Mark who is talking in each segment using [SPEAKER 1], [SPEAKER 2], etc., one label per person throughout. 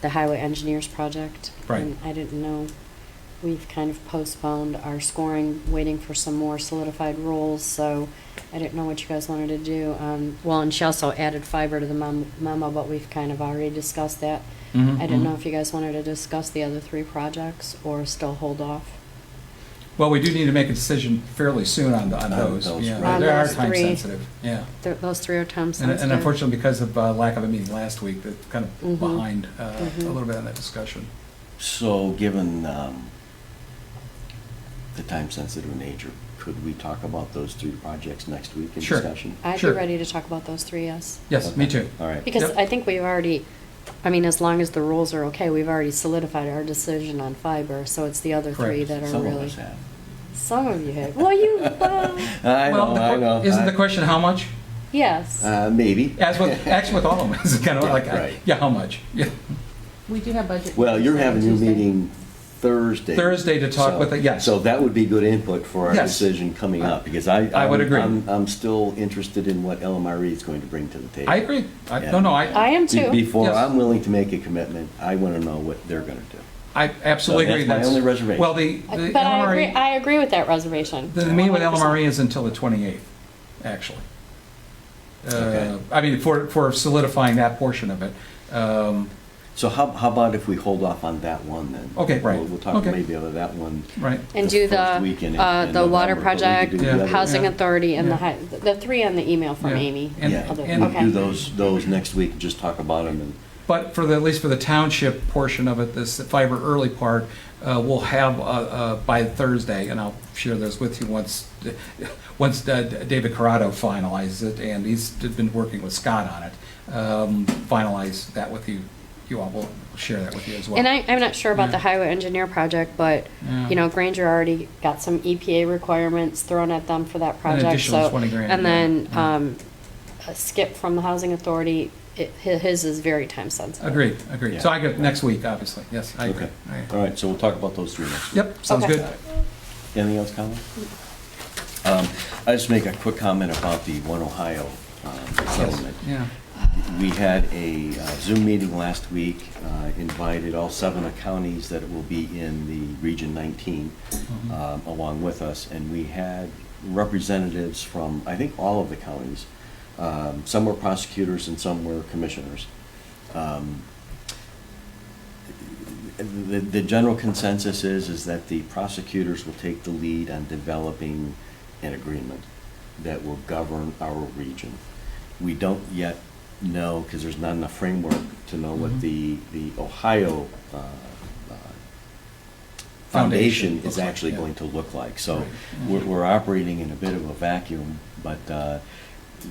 [SPEAKER 1] the highway engineers project.
[SPEAKER 2] Right.
[SPEAKER 1] And I didn't know, we've kind of postponed our scoring, waiting for some more solidified rules, so I didn't know what you guys wanted to do. Um, well, and she also added fiber to the mem- memo, but we've kind of already discussed that.
[SPEAKER 2] Mm-hmm,
[SPEAKER 1] I didn't know if you guys wanted to discuss the other three projects or still hold off.
[SPEAKER 2] Well, we do need to make a decision fairly soon on, on
[SPEAKER 3] On
[SPEAKER 2] those.
[SPEAKER 3] those,
[SPEAKER 2] Yeah,
[SPEAKER 3] right.
[SPEAKER 2] They
[SPEAKER 1] On
[SPEAKER 2] are
[SPEAKER 1] those
[SPEAKER 2] time
[SPEAKER 1] three.
[SPEAKER 2] sensitive, yeah.
[SPEAKER 1] Th- Those three are time
[SPEAKER 2] And
[SPEAKER 1] sensitive.
[SPEAKER 2] and unfortunately, because of uh, lack of a meeting last week, that's kind of
[SPEAKER 1] Mhm.
[SPEAKER 2] behind uh, a
[SPEAKER 1] Mhm.
[SPEAKER 2] little bit on that discussion.
[SPEAKER 3] So, given um, the time-sensitive nature, could we talk about those three projects next week in
[SPEAKER 2] Sure.
[SPEAKER 3] discussion?
[SPEAKER 1] I'd be
[SPEAKER 2] Sure.
[SPEAKER 1] ready to talk about those three, yes.
[SPEAKER 2] Yes, me
[SPEAKER 3] Okay.
[SPEAKER 2] too.
[SPEAKER 3] All right.
[SPEAKER 1] Because
[SPEAKER 2] Yep.
[SPEAKER 1] I think we've already, I mean, as long as the rules are okay, we've already solidified our decision on fiber, so it's the other three
[SPEAKER 2] Correct.
[SPEAKER 1] that are
[SPEAKER 3] Some of
[SPEAKER 1] really.
[SPEAKER 3] us have. Uh,
[SPEAKER 1] Some of you have, well, you, well,
[SPEAKER 3] I
[SPEAKER 2] Well,
[SPEAKER 3] know,
[SPEAKER 2] the
[SPEAKER 3] I
[SPEAKER 2] que-
[SPEAKER 3] know.
[SPEAKER 2] Isn't
[SPEAKER 3] I-
[SPEAKER 2] the question how much?
[SPEAKER 1] yes.
[SPEAKER 3] Uh, maybe.
[SPEAKER 2] As with, actually with all of them, it's kind of
[SPEAKER 3] Yeah,
[SPEAKER 2] like, uh,
[SPEAKER 3] right.
[SPEAKER 2] yeah, how much? Yeah.
[SPEAKER 4] We do have budget.
[SPEAKER 3] Well, you're having your
[SPEAKER 4] Tuesday.
[SPEAKER 3] meeting Thursday.
[SPEAKER 2] Thursday to talk
[SPEAKER 3] So-
[SPEAKER 2] with the- yes.
[SPEAKER 3] So that would be good input for our
[SPEAKER 2] Yes.
[SPEAKER 3] decision coming up, because I.
[SPEAKER 2] I would
[SPEAKER 3] I'm-
[SPEAKER 2] agree.
[SPEAKER 3] I'm, I'm still interested in what LMRE is going to bring to the table.
[SPEAKER 2] I agree. I,
[SPEAKER 3] Yeah.
[SPEAKER 2] no, no,
[SPEAKER 1] I
[SPEAKER 2] I,
[SPEAKER 1] am
[SPEAKER 3] Be-
[SPEAKER 1] too.
[SPEAKER 3] Before
[SPEAKER 2] Yes.
[SPEAKER 3] I'm willing to make a commitment, I want to know what they're going to do.
[SPEAKER 2] I absolutely
[SPEAKER 3] So
[SPEAKER 2] agree.
[SPEAKER 3] that's my only reservation.
[SPEAKER 2] Well, the, the
[SPEAKER 1] But I
[SPEAKER 3] E.
[SPEAKER 1] agree,
[SPEAKER 2] LMRE,
[SPEAKER 1] I agree with that reservation.
[SPEAKER 2] the meeting with
[SPEAKER 1] 100%.
[SPEAKER 2] LMRE E is until the 28th, actually. Uh,
[SPEAKER 3] Okay.
[SPEAKER 2] I mean, for, for solidifying that portion of it. Um,
[SPEAKER 3] So how, how about if we hold off on that one then?
[SPEAKER 2] Okay, right.
[SPEAKER 3] We'll- We'll talk
[SPEAKER 2] Okay.
[SPEAKER 3] maybe about that one.
[SPEAKER 2] Right.
[SPEAKER 1] And
[SPEAKER 3] E the
[SPEAKER 1] do
[SPEAKER 3] first weekend
[SPEAKER 1] the,
[SPEAKER 3] in-
[SPEAKER 1] uh,
[SPEAKER 3] in
[SPEAKER 1] the
[SPEAKER 3] November,
[SPEAKER 1] water
[SPEAKER 3] but we
[SPEAKER 1] project,
[SPEAKER 3] could do the
[SPEAKER 2] Yeah.
[SPEAKER 3] other-
[SPEAKER 1] housing
[SPEAKER 2] Yeah.
[SPEAKER 1] authority, and the,
[SPEAKER 2] Yeah.
[SPEAKER 1] hi- the three on the email from
[SPEAKER 2] Yeah.
[SPEAKER 1] Amy.
[SPEAKER 2] And-
[SPEAKER 3] Yeah,
[SPEAKER 1] Other-
[SPEAKER 2] and-
[SPEAKER 3] we'll
[SPEAKER 1] Okay.
[SPEAKER 3] do those, those next week, and just talk about them and.
[SPEAKER 2] But for the, at least for the township portion of it, this fiber early part, uh, we'll have uh, uh, by Thursday, and I'll share those with you once, once uh, David Corrado finalizes it, and he's been working with Scott on it. Um, Finalize that with you, you all, we'll share that with you as well.
[SPEAKER 1] And I, I'm not sure about the
[SPEAKER 2] Yeah.
[SPEAKER 1] highway engineer project, but,
[SPEAKER 2] Yeah.
[SPEAKER 1] you know, Granger already got some EPA requirements thrown at them for that project, so.
[SPEAKER 2] additional 20 grand,
[SPEAKER 1] And
[SPEAKER 2] yeah.
[SPEAKER 1] then,
[SPEAKER 2] Yeah.
[SPEAKER 1] um, Skip from the housing authority, it, hi- his is very time sensitive.
[SPEAKER 2] Agreed, agreed. So
[SPEAKER 3] Yeah.
[SPEAKER 2] I go, next week, obviously, yes, I agree.
[SPEAKER 3] Okay.
[SPEAKER 2] I agree.
[SPEAKER 3] All right, so we'll talk about those three next week.
[SPEAKER 2] Yep, sounds
[SPEAKER 1] Okay.
[SPEAKER 2] good.
[SPEAKER 3] Anything else, Colin? Um, I just make a quick comment about the One Ohio um, settlement.
[SPEAKER 2] Yeah,
[SPEAKER 3] We had a uh, Zoom meeting last week, uh, invited all seven of counties that will be in the Region 19 um, along with us, and we had representatives from, I think, all of the counties. Um, Some were prosecutors and some were commissioners. Um, The, the general consensus is, is that the prosecutors will take the lead on developing an agreement that will govern our region. We don't yet know, because there's not enough framework to know what
[SPEAKER 2] Mhm.
[SPEAKER 3] the, the Ohio uh, uh,
[SPEAKER 2] Foundation
[SPEAKER 3] foundation
[SPEAKER 2] looks
[SPEAKER 3] is
[SPEAKER 2] like,
[SPEAKER 3] actually
[SPEAKER 2] yeah.
[SPEAKER 3] going to look like. So
[SPEAKER 2] Right.
[SPEAKER 3] we're, we're operating in a bit of a vacuum, but uh,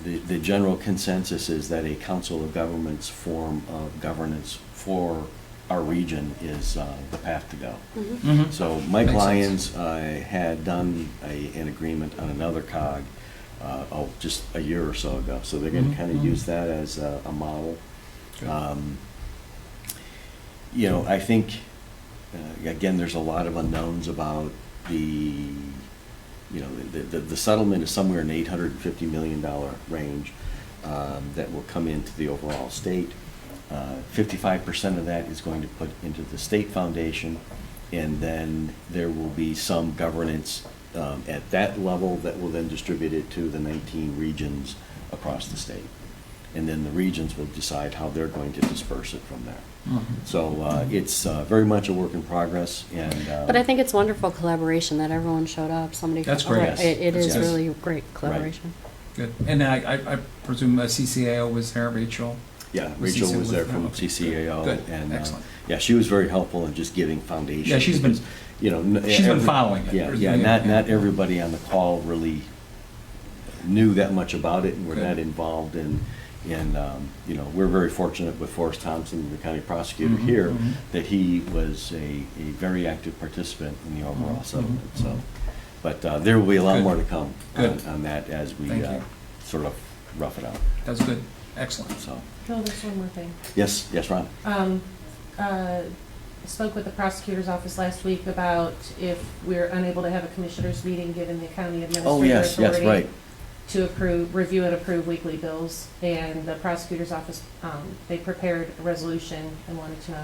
[SPEAKER 3] the, the general consensus is that a council of governments form of governance for our region is uh, the path to go.
[SPEAKER 1] Mhm.
[SPEAKER 2] Mhm.
[SPEAKER 3] So Mike
[SPEAKER 2] Makes sense.
[SPEAKER 3] Lyons uh, had done a, an agreement on another cog, uh, oh, just a year or so ago. So they're going to
[SPEAKER 2] Mhm,
[SPEAKER 3] kind of
[SPEAKER 2] mhm.
[SPEAKER 3] use that as a, a model.
[SPEAKER 2] Good.
[SPEAKER 3] Um, You know, I think, uh, again, there's a lot of unknowns about the, you know, the, the the settlement is somewhere in eight hundred and fifty million dollar range um, that will come into the overall state. Uh, Fifty-five percent of that is going to put into the state foundation, and then there will be some governance um, at that level that will then distribute it to the nineteen regions across the state. And then the regions will decide how they're going to disperse it from there.
[SPEAKER 2] Mhm.
[SPEAKER 3] So uh, it's uh, very much a work in progress, and. uh,
[SPEAKER 1] But I think it's wonderful collaboration that everyone showed up, somebody.
[SPEAKER 2] That's
[SPEAKER 1] from-
[SPEAKER 2] great.
[SPEAKER 1] It, it
[SPEAKER 3] Yes.
[SPEAKER 1] is
[SPEAKER 3] Yes.
[SPEAKER 1] really great collaboration.
[SPEAKER 2] Good. And I, I- I presume uh, CCAO was there, Rachel?
[SPEAKER 3] Yeah,
[SPEAKER 2] Was
[SPEAKER 3] Rachel
[SPEAKER 2] CCAO
[SPEAKER 3] was there
[SPEAKER 2] with-
[SPEAKER 3] from
[SPEAKER 2] okay, good,
[SPEAKER 3] CCAO.
[SPEAKER 2] good,
[SPEAKER 3] and uh,
[SPEAKER 2] excellent.
[SPEAKER 3] Yeah, she was very helpful in just giving foundation.
[SPEAKER 2] Yeah, she's been-
[SPEAKER 3] because, You know. n-
[SPEAKER 2] she's been
[SPEAKER 3] every-
[SPEAKER 2] following it.
[SPEAKER 3] Yeah,
[SPEAKER 2] There's
[SPEAKER 3] yeah,
[SPEAKER 2] been-
[SPEAKER 3] not,
[SPEAKER 2] yeah.
[SPEAKER 3] not everybody on the call really knew that much about it, and were
[SPEAKER 2] Good.
[SPEAKER 3] not involved in, in, um, you know, we're very fortunate with Forrest Thompson, the county prosecutor
[SPEAKER 2] Mhm,
[SPEAKER 3] here,
[SPEAKER 2] mhm.
[SPEAKER 3] that he was a, a very active participant in the
[SPEAKER 2] Mhm,
[SPEAKER 3] overall
[SPEAKER 2] mhm,
[SPEAKER 3] settlement, so.
[SPEAKER 2] mhm.
[SPEAKER 3] But uh, there will be a lot
[SPEAKER 2] Good.
[SPEAKER 3] more to come on,
[SPEAKER 2] Good.
[SPEAKER 3] on that as we
[SPEAKER 2] Thank
[SPEAKER 3] uh,
[SPEAKER 2] you.
[SPEAKER 3] sort of rough it out,
[SPEAKER 2] That's good, excellent.
[SPEAKER 3] so.
[SPEAKER 4] No, there's Oh, one more thing.
[SPEAKER 3] Yes, yes, Ron?
[SPEAKER 4] Um, uh, I spoke with the prosecutor's office last week about if we're unable to have a commissioners meeting, given the county
[SPEAKER 3] Oh,
[SPEAKER 4] administrator
[SPEAKER 3] yes, yes, right.
[SPEAKER 4] authority to approve, review and approve weekly bills. And the prosecutor's office, um, they prepared a resolution and wanted to know